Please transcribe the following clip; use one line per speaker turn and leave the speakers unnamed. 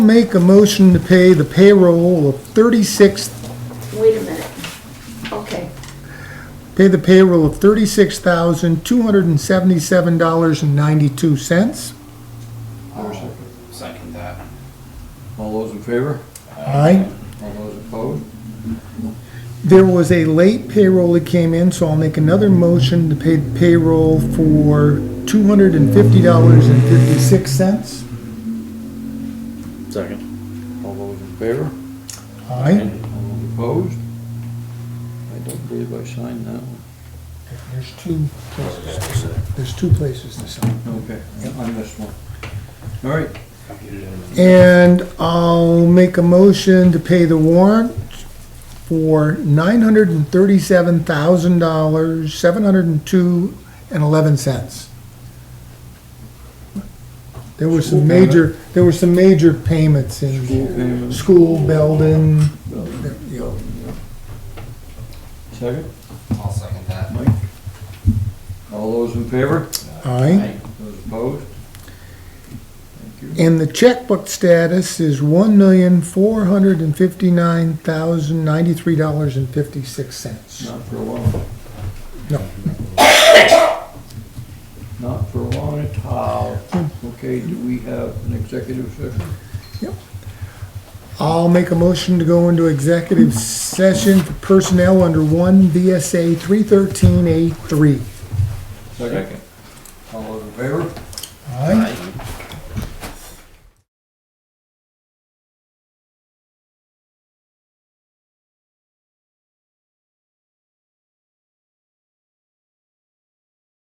Make a motion to pay the payroll of thirty-six,
Wait a minute. Okay,
pay the payroll of thirty-six thousand, two hundred and seventy-seven dollars and ninety-two cents.
Second that.
All those in favor?
Aye.
All those opposed?
There was a late payroll that came in, so I'll make another motion to pay the payroll for two hundred and fifty dollars and fifty-six cents.
Second.
All those in favor?
Aye.
All those opposed? I don't believe I signed that one.
There's two places, to sign. there's two places to sign.
Okay, I missed one. All right,
And I'll make a motion to pay the warrant for nine hundred and thirty-seven thousand dollars, seven hundred and two and eleven cents. There were some major, there were some major payments in
payment,
school, Belden, you know,
second,
I'll second that.
Mike? All those in favor?
aye.
Those opposed? Thank you.
And the checkbook status is one million, four hundred and fifty-nine thousand, ninety-three dollars and fifty-six cents.
Not for a long,
No,
not for a long time. Okay, do we have an executive session?
I'll make a motion to go into executive session for personnel under one VSA three thirteen A three.
Second. All those in favor?